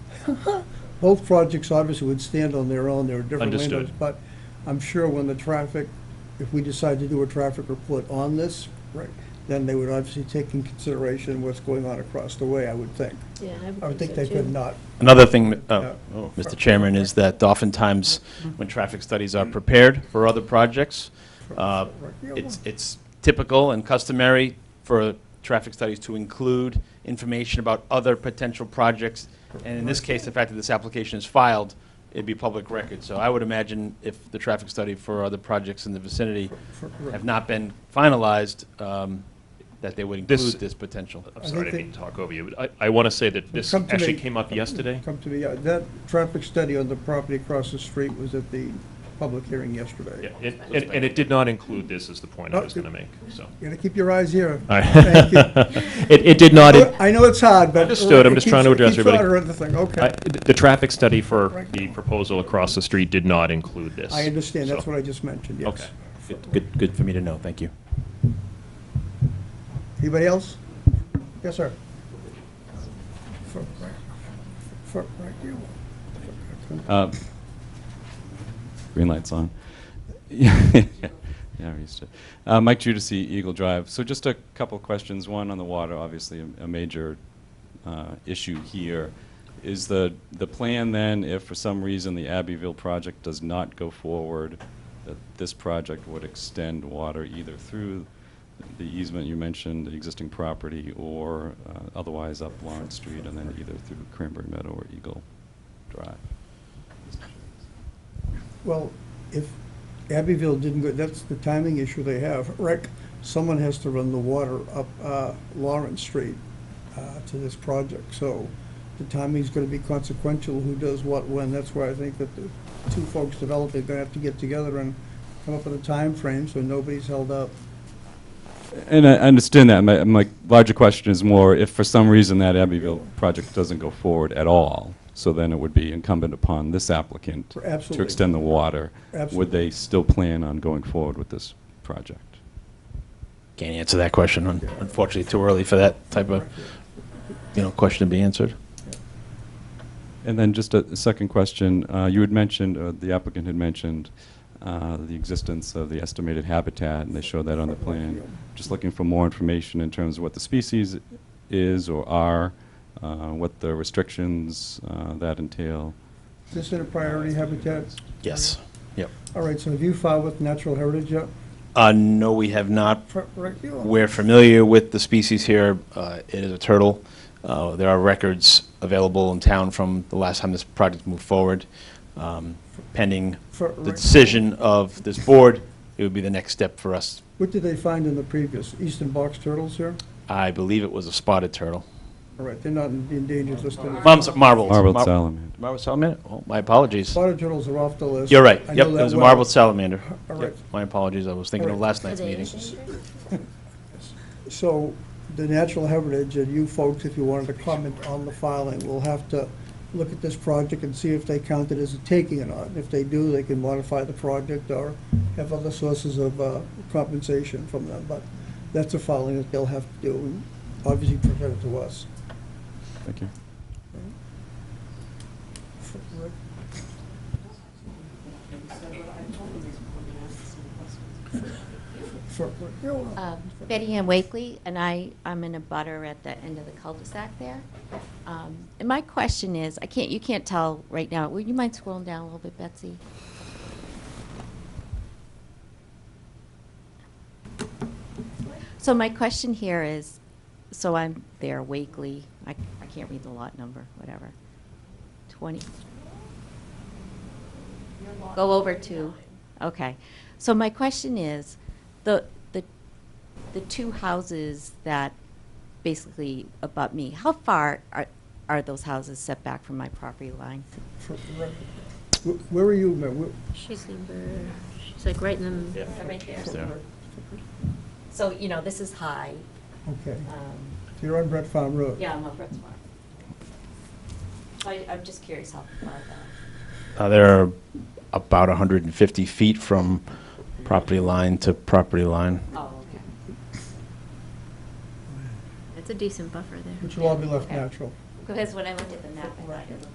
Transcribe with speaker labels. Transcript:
Speaker 1: Both projects obviously would stand on their own, there are different
Speaker 2: Understood.
Speaker 1: windows, but I'm sure when the traffic, if we decide to do a traffic report on this, right, then they would obviously take in consideration what's going on across the way, I would think.
Speaker 3: Yeah,
Speaker 1: I would think
Speaker 3: so,
Speaker 1: they could
Speaker 3: too.
Speaker 1: not.
Speaker 2: Another thing, that-
Speaker 1: Yeah.
Speaker 2: oh, oh, Mr. Chairman, is that oftentimes, when traffic studies are prepared for other projects, uh,
Speaker 1: Yeah,
Speaker 2: it's it's typical and customary for traffic studies to include information about other potential projects, and in this case, the fact that this application is filed, it'd be public record. So I would imagine if the traffic study for other projects in the vicinity have not been finalized, um, that they would This- include this potential.
Speaker 1: I
Speaker 4: I'm sorry, I
Speaker 1: think
Speaker 4: didn't mean to talk over you, but I, I want to say that this
Speaker 1: Come to
Speaker 4: actually
Speaker 1: me.
Speaker 4: came up yesterday.
Speaker 1: Come to me, yeah, that traffic study on the property across the street was at the public hearing yesterday.
Speaker 4: Yeah, And, and- and it did not include this, is the point I was going to make, so.
Speaker 1: You gotta keep your eyes here.
Speaker 4: All right.
Speaker 1: Thank you.
Speaker 4: It, it did not, in-
Speaker 1: I know it's hard, but. uh,
Speaker 4: Understood. I'm just trying to
Speaker 1: Keep- keep
Speaker 4: address everybody.
Speaker 1: short or anything.
Speaker 4: I-
Speaker 1: okay.
Speaker 4: the traffic study for the proposal across the street did not include this.
Speaker 1: I understand, that's
Speaker 4: so-
Speaker 1: what I just mentioned,
Speaker 4: Okay.
Speaker 1: yes.
Speaker 2: Good, good for me to know, thank you.
Speaker 1: Anybody else? Yes, sir. For- right- for- right here.
Speaker 5: Uh, Green light's on. Yeah, we're used to it. Uh, Mike Judici, Eagle Drive. So just a couple questions. One on the water, obviously a, a major uh, issue here. Is the, the plan then, if for some reason the Abbeville project does not go forward, that this project would extend water either through the easement you mentioned, the existing property, or uh, otherwise up Lawrence Street and then either through Cranberry Meadow or Eagle Drive?
Speaker 1: Well, if Abbeville didn't go, that's the timing issue they have. Rick, someone has to run the water up uh, Lawrence Street uh, to this project, so the timing's gonna be consequential, who does what when. That's why I think that the two folks developing are gonna have to get together and come up with a time frame so nobody's held up.
Speaker 5: And I I understand that. My, my larger question is more, if for some reason that Abbeville project doesn't go forward at all, so then it would be incumbent upon this applicant to
Speaker 1: Absolutely.
Speaker 5: extend the water. Would
Speaker 1: Absolutely.
Speaker 5: they still plan on going forward with this project?
Speaker 2: Can't answer that question, un- unfortunately, too early for that type of, you know, question to be answered.
Speaker 5: And then just a second question. Uh, You had mentioned, uh, the applicant had mentioned uh, the existence of the estimated habitat, and they showed that on the plan. Just looking for more information in terms of what the species is or are, uh, what the restrictions uh, that entail.
Speaker 1: Is this in a priority habitat?
Speaker 2: Yes. Yep.
Speaker 1: All right, so have you filed with Natural Heritage yet?
Speaker 2: Uh, no, we have not.
Speaker 1: For- Rick, you are.
Speaker 2: We're familiar with the species here. Uh, it is a turtle. Uh, there are records available in town from the last time this project moved forward. Um, pending
Speaker 1: For-
Speaker 2: the decision of this board, it would be the next step for us.
Speaker 1: What did they find in the previous, eastern box turtles here?
Speaker 2: I believe it was a spotted turtle.
Speaker 1: All right, they're not in the endangered list anymore.
Speaker 2: Mom's marbled.
Speaker 5: Marbled
Speaker 2: Mar-
Speaker 5: salamander.
Speaker 2: Marbled salamander? Oh, my apologies.
Speaker 1: Spotted turtles are off the list.
Speaker 2: You're right.
Speaker 1: I
Speaker 2: Yep,
Speaker 1: know
Speaker 2: it
Speaker 1: that
Speaker 2: was a
Speaker 1: well.
Speaker 2: marbled salamander.
Speaker 1: All
Speaker 2: Yep,
Speaker 1: right.
Speaker 2: My apologies, I was thinking
Speaker 1: All
Speaker 2: of
Speaker 1: right.
Speaker 2: last night's
Speaker 3: Are they
Speaker 2: meeting.
Speaker 3: endangered?
Speaker 1: So the natural heritage and you folks, if you wanted to comment on the filing, will have to look at this project and see if they count it as a taking or not. If they do, they can modify the project or have other sources of uh, compensation from them. But that's a filing that they'll have to do and obviously present it to us.
Speaker 5: Thank you.
Speaker 1: For-
Speaker 3: Um, Betty Ann Wakely, and I, I'm in a butter at the end of the cul-de-sac there. Um, And my question is, I can't, you can't tell right now, would you mind scrolling down a little bit, Betsy? So my question here is, so I'm there, Wakely, I, I can't read the lot number, whatever, 20. Go over to, okay. So my question is, the, the the two houses that basically abut me, how far are, are those houses set back from my property line?
Speaker 1: for- where- Where are you, ma'am? Where-
Speaker 6: She's number, she's like right in the,
Speaker 3: Right there.
Speaker 2: There.
Speaker 3: So, you know, this is high.
Speaker 1: Okay,
Speaker 3: um,
Speaker 1: so you're on Brett Farm Road.
Speaker 3: Yeah, I'm over at Swan. So I, I'm just curious how far that.
Speaker 2: Uh, They're about 150 feet from property line to property line.
Speaker 3: Oh, okay.
Speaker 6: it's a decent buffer there.
Speaker 1: Which will all be left
Speaker 3: Okay.
Speaker 1: natural.
Speaker 3: Because when I looked at the map, I thought it was